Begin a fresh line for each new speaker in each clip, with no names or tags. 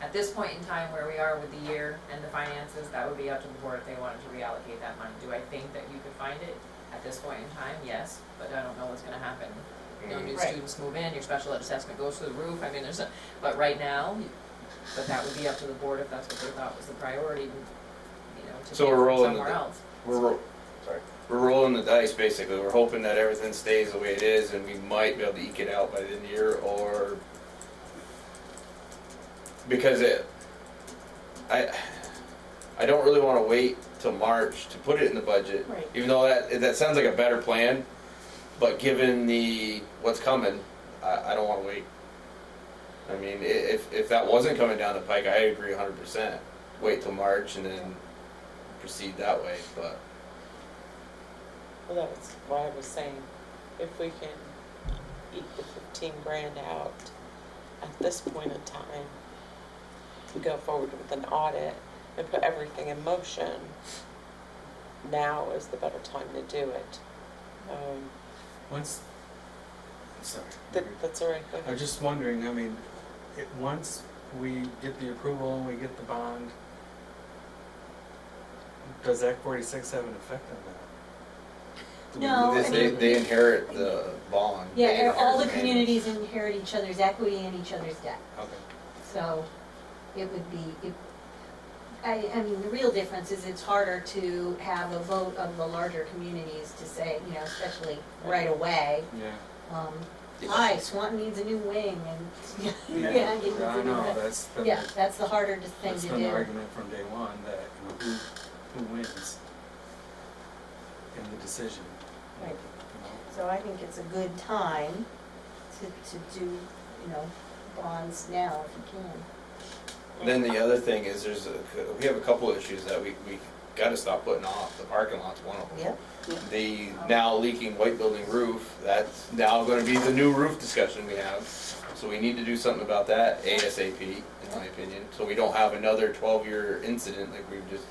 At this point in time, where we are with the year and the finances, that would be up to the board if they wanted to reallocate that money. Do I think that you could find it? At this point in time, yes, but I don't know what's gonna happen. You know, new
Right.
students move in, your special ed assessment goes through the roof, I mean, there's a, but right now, but that would be up to the board if that's what they thought was the priority, you know, to be
So we're rolling the
somewhere
di-
else.
We're, ro-
Sorry.
we're rolling the dice basically. We're hoping that everything stays the way it is and we might be able to eke it out by the end of the year or because it I I don't really want to wait till March to put it in the budget.
Right.
Even though that that sounds like a better plan, but given the what's coming, I, I don't want to wait. I mean, i- if if that wasn't coming down the pike, I agree 100%. Wait till March and then proceed that way, but
Well, that was why I was saying, if we can eat the fifteen grand out at this point in time, to go forward with an audit and put everything in motion, now is the better time to do it. Um,
Once, sorry.
that, that's all right, go
I
ahead.
was just wondering, I mean, it, once we get the approval and we get the bond, does Act forty-six have an effect on that?
No,
They-
I
They,
mean-
they inherit the bond.
Yeah,
They
and all
inherit
the
name.
communities inherit each other's equity and each other's debt,
Okay.
so it would be, it, I, I mean, the real difference is it's harder to have a vote of the larger communities to say, you know, especially right away,
Yeah.
um,
Yeah.
hi, Swanton needs a new wing and, yeah, it needs a
I
new
know,
wing.
that's been,
Yeah,
the-
that's the harder to- thing
that's
to
been the
do.
argument from day one, that, you know, who, who wins in the decision,
Right.
you know?
So I think it's a good time to, to do, you know, bonds now if you can.
Then the other thing is there's a, we have a couple issues that we, we gotta stop putting off. The parking lot's one of them.
Yep.
The now leaking white building roof, that's now gonna be the new roof discussion we have. So we need to do something about that ASAP, in my opinion, so we don't have another twelve-year incident like we've just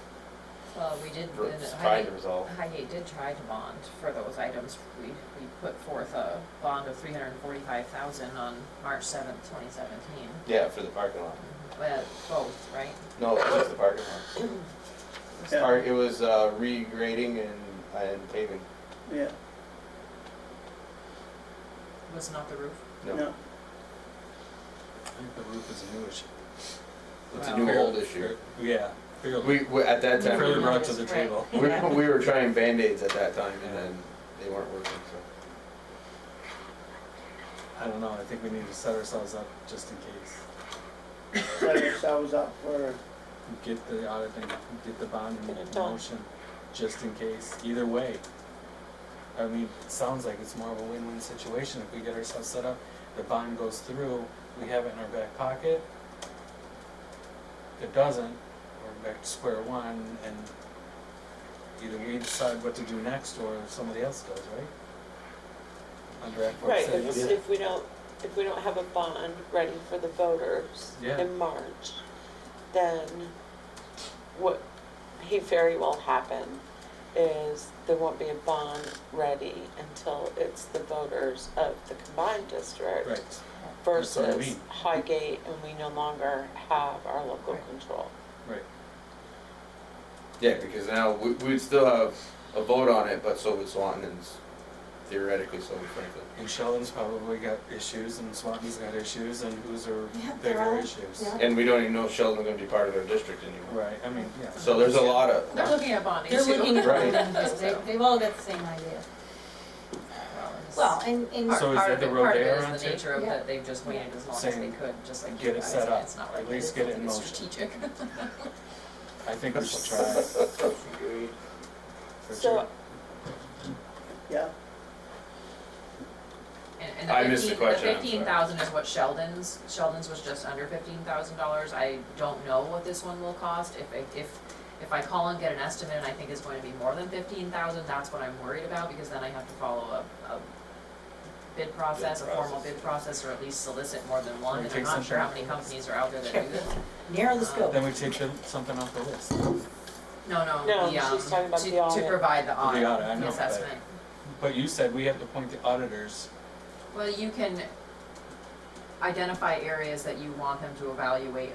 Well, we did,
re-
the
tried to
Highgate,
resolve.
Highgate did try to bond for those items. We, we put forth a bond of three hundred and forty-five thousand on March seventh, twenty seventeen.
Yeah, for the parking lot.
Well, both, right?
No, it was the parking lot. It was
Yeah.
par- It was, uh, regrading and, and paving.
Yeah,
Was not the roof?
no,
I think the roof is a new issue.
It's
Wow.
a new old issue.
Yeah,
We,
fairly,
we, at that time,
fairly
we
brought to the
Right.
table.
were, we were trying Band-Aids at that time and then they weren't working, so.
I don't know, I think we need to set ourselves up just in case.
set ourselves up for,
Get the audit and get the bond
Get
in
it done.
motion, just in case, either way. I mean, it sounds like it's more of a win-win situation if we get ourselves set up, the bond goes through, we have it in our back pocket. If it doesn't, we're back to square one and either we decide what to do next or somebody else does, right? Under Act four
Right,
six.
if, if we don't, if we don't have a bond ready for the voters
Yeah.
in March, then what he very well happen is there won't be a bond ready until it's the voters of the combined district
Right, that's what I
versus
mean.
Highgate, and we no longer have our local
Right.
control.
right,
Yeah, because now we, we'd still have a vote on it, but so would Swanton and s- theoretically so would Franklin.
and Sheldon's probably got issues and Swanton's got issues and who's are
Yeah, they're
bigger
all-
issues.
yeah.
And we don't even know if Sheldon's gonna be part of their district anymore.
Right, I mean, yeah.
So there's a lot of,
They're looking at bonding too.
They're looking at
Right.
them, they, they've all got the same idea. Well, and, and.
So is
Part
that
of
the
it,
road
part of
they
it
are on
is the
too?
nature of
Yeah.
that they've just waited as long as they
Saying,
could, just like
get
you
it
guys,
set up.
it's not like
At least
it's
get it in
something
motion.
strategic.
I think we should try. For
So
sure.
yeah,
And, and
I
the
missed the
fifteen,
question, I'm sorry.
fifteen thousand is what Sheldon's, Sheldon's was just under fifteen thousand dollars, I don't know what this one will cost, if, I- if, if I call and get an estimate and I think it's going to be more than fifteen thousand, that's what I'm worried about, because then I have to follow a, a bid process, a formal
process.
bid process, or at least solicit more than
Or
one, and I'm
take
not sure how
something
many
from us.
companies are out there that do this.
Narrow the scope.
Then we take the- something off the list.
No, no,
No,
the, um,
she's talking about
to,
the
to
audit.
provide the audit,
audit, I know,
the
but-
assessment.
But you said we have to appoint the auditors.
Well, you can identify areas that you want them to evaluate